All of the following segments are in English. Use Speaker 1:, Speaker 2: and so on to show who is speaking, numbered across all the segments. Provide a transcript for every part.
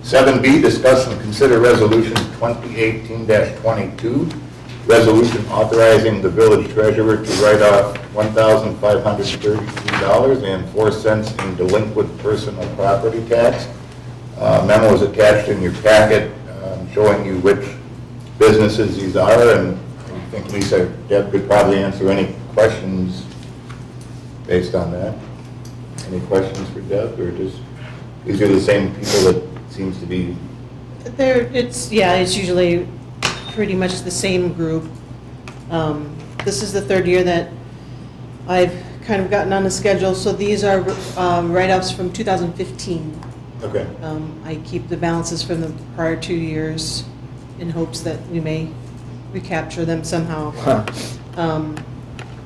Speaker 1: 7B, discuss and consider resolution 2018-22, resolution authorizing the village treasurer to write off $1,533.04 in delinquent personal property tax. Uh, Memo is attached in your packet um, showing you which businesses these are, and I think Lisa, Deb could probably answer any questions based on that. Any questions for Deb, or just, these are the same people that seems to be,
Speaker 2: There, it's, yeah, it's usually pretty much the same group. Um, This is the third year that I've kind of gotten on the schedule, so these are um, write-ups from 2015.
Speaker 1: okay,
Speaker 2: Um, I keep the balances from the prior two years in hopes that we may recapture them somehow. Um,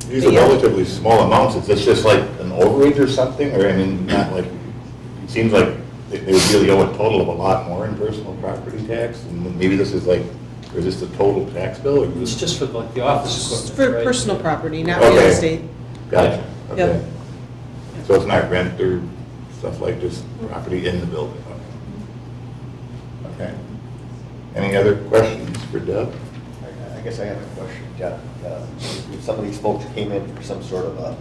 Speaker 1: these are
Speaker 2: Yeah.
Speaker 1: relatively small amounts, is this just like an overage or something, or, I mean, not like, it seems like they they would really owe a total of a lot more in personal property tax, and maybe this is like, or is this the total tax bill, or
Speaker 3: It's
Speaker 1: just?
Speaker 3: just for like the office
Speaker 2: It's
Speaker 3: equipment,
Speaker 2: For
Speaker 3: right?
Speaker 2: personal property, not real
Speaker 1: Okay.
Speaker 2: estate.
Speaker 1: Gotcha,
Speaker 2: Yep.
Speaker 1: okay. So it's not rent or stuff like just property in the building, okay. Okay. Any other questions for Deb?
Speaker 4: I I guess I have a question, Jeff. Uh, If some of these folks came in for some sort of a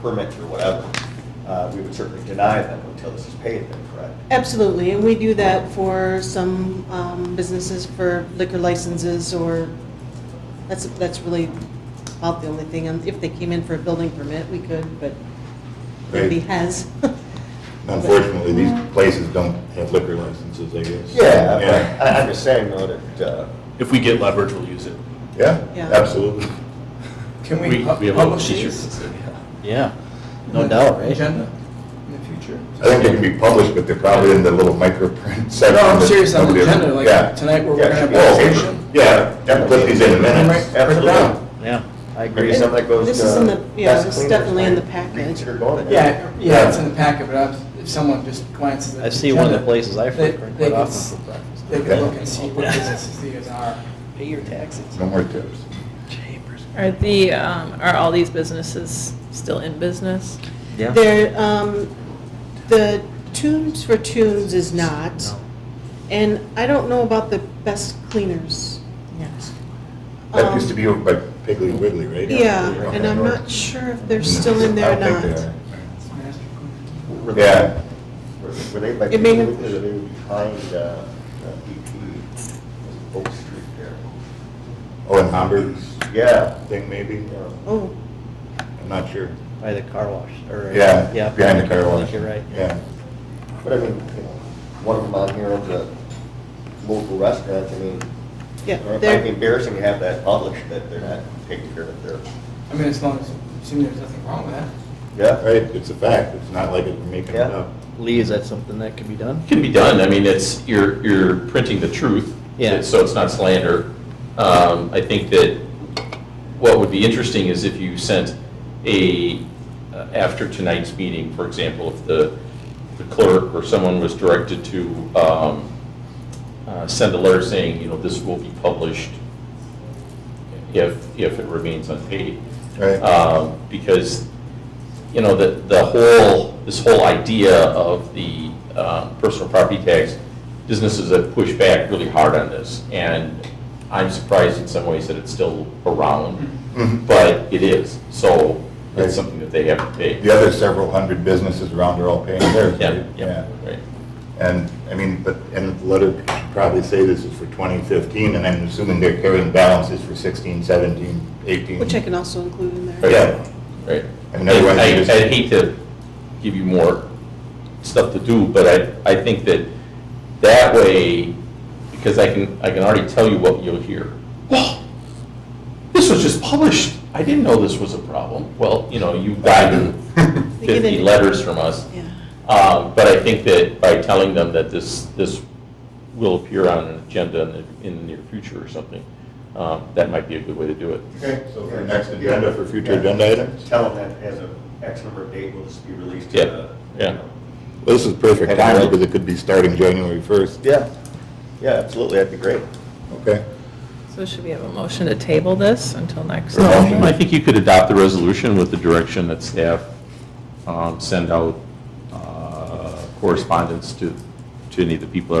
Speaker 4: permit or whatever, uh, we would certainly deny them until this is paid, then, correct?
Speaker 2: Absolutely, and we do that for some um, businesses for liquor licenses or, that's, that's really about the only thing. And If they came in for a building permit, we could, but nobody
Speaker 1: Right.
Speaker 2: has.
Speaker 1: Unfortunately, these places don't have liquor licenses, I guess.
Speaker 4: Yeah,
Speaker 1: Yeah,
Speaker 4: but I- I'm just saying though that, uh,
Speaker 5: If we get leverage, we'll use it.
Speaker 1: Yeah,
Speaker 2: Yeah.
Speaker 1: absolutely.
Speaker 6: Can
Speaker 5: We-
Speaker 6: we
Speaker 5: we
Speaker 6: pub-
Speaker 5: have a
Speaker 6: publish
Speaker 5: teacher.
Speaker 6: these?
Speaker 7: Yeah, no doubt, right?
Speaker 6: Agenda in the future.
Speaker 1: I think they can be published, but they're probably in the little microprint
Speaker 6: No,
Speaker 1: section.
Speaker 6: I'm
Speaker 1: that
Speaker 6: serious, on the
Speaker 1: nobody ever-
Speaker 6: agenda,
Speaker 1: Yeah.
Speaker 6: like tonight where
Speaker 4: Yeah,
Speaker 6: we're gonna have
Speaker 4: should be all
Speaker 6: a
Speaker 1: Oh,
Speaker 4: over.
Speaker 6: session.
Speaker 1: Yeah, Deb, put these in minutes.
Speaker 6: Right,
Speaker 1: Put it down.
Speaker 7: Yeah, I
Speaker 4: maybe
Speaker 7: agree.
Speaker 4: some that goes to.
Speaker 2: This is in the- yeah,
Speaker 4: desk
Speaker 2: it's
Speaker 4: cleaners
Speaker 2: definitely in the
Speaker 4: might
Speaker 2: package.
Speaker 4: Reconsider going there.
Speaker 6: Yeah, yeah, it's in the packet, but I- if someone just glances at the
Speaker 7: I see one of the
Speaker 6: agenda,
Speaker 7: places I
Speaker 6: they-
Speaker 7: frequent
Speaker 6: they
Speaker 7: quite
Speaker 6: could
Speaker 7: often
Speaker 6: s-
Speaker 7: for breakfast.
Speaker 6: They
Speaker 1: Okay.
Speaker 6: can look and see what businesses these are.
Speaker 7: Pay your taxes.
Speaker 1: No more tips.
Speaker 7: Chambers.
Speaker 8: Are the, um, are all these businesses still in business?
Speaker 7: Yeah.
Speaker 2: There, um, the Tunes for Tunes is not,
Speaker 7: No.
Speaker 2: and I don't know about the Best Cleaners.
Speaker 8: Yes.
Speaker 1: That
Speaker 2: Um,
Speaker 1: used to be over by Piggly Wiggly, right?
Speaker 2: Yeah,
Speaker 1: Okay.
Speaker 2: and I'm not sure if they're still in there or
Speaker 1: Mm. I don't think
Speaker 2: not.
Speaker 6: It's master clean.
Speaker 4: Were they-
Speaker 1: Yeah.
Speaker 4: were- Were they by,
Speaker 2: It may have-
Speaker 4: were they behind uh, uh, BP, Oak Street there?
Speaker 1: Oh, and Hamburg's
Speaker 4: Yeah.
Speaker 1: thing maybe?
Speaker 4: yeah.
Speaker 2: Oh,
Speaker 1: I'm not sure.
Speaker 7: By the car wash, or.
Speaker 1: Yeah,
Speaker 7: Yeah.
Speaker 1: behind the car
Speaker 7: I
Speaker 1: wash.
Speaker 7: think you're right.
Speaker 1: Yeah.
Speaker 4: But I mean, you know, one of them on here at the local restaurant, I mean,
Speaker 2: yeah,
Speaker 4: it might be
Speaker 2: they're,
Speaker 4: embarrassing to have that published, that they're not taking care of their,
Speaker 6: I mean, as long as, assuming there's nothing wrong with that.
Speaker 4: yeah,
Speaker 1: Right, it's a fact, it's not like we're making it
Speaker 4: Yeah.
Speaker 1: up.
Speaker 7: Lee, is that something that can be done?
Speaker 5: Can be done, I mean, it's, you're, you're printing the truth.
Speaker 7: Yeah.
Speaker 5: So it's not slander. Um, I think that what would be interesting is if you sent a, uh, after tonight's meeting, for example, if the the clerk or someone was directed to um, uh, send a letter saying, you know, this will be published if, if it remains unpaid.
Speaker 1: Right.
Speaker 5: Um, Because, you know, the, the whole, this whole idea of the um, personal property tax, businesses have pushed back really hard on this, and I'm surprised in some ways that it's still around,
Speaker 1: Mhm.
Speaker 5: but it is, so
Speaker 1: Right.
Speaker 5: it's something that they have to pay.
Speaker 1: The other several hundred businesses around are all paying theirs.
Speaker 5: Yeah,
Speaker 1: right?
Speaker 5: yeah, right.
Speaker 1: And, I mean, but, and the letter should probably say this is for 2015, and I'm assuming they're carrying balances for 16, 17, 18.
Speaker 2: which I can also include in there.
Speaker 1: Oh,
Speaker 5: Right.
Speaker 1: Yeah,
Speaker 5: Right.
Speaker 1: And everyone
Speaker 5: I- I-
Speaker 1: just-
Speaker 5: I'd hate to give you more stuff to do, but I, I think that that way, because I can, I can already tell you what you'll hear. Well, this was just published. I didn't know this was a problem. Well, you know, you've gotten
Speaker 2: They get
Speaker 5: 50
Speaker 2: it.
Speaker 5: letters from us.
Speaker 2: Yeah.
Speaker 5: Um, But I think that by telling them that this, this will appear on an agenda in the, in the near future or something, um, that might be a good way to do it.
Speaker 1: Okay, so for next agenda, for future agenda items?
Speaker 4: tell them that as a X number of date will just be released to
Speaker 5: Yeah,
Speaker 4: the.
Speaker 5: yeah.
Speaker 1: Well, this is perfect
Speaker 4: And
Speaker 1: timing
Speaker 4: I'll-
Speaker 1: because it could be starting January 1st.
Speaker 4: Yeah, yeah, absolutely, that'd be great.
Speaker 1: Okay.
Speaker 8: So should we have a motion to table this until next?
Speaker 1: No.
Speaker 8: time?
Speaker 5: I think you could adopt the resolution with the direction that staff um, send out uh, correspondence to, to any of the people that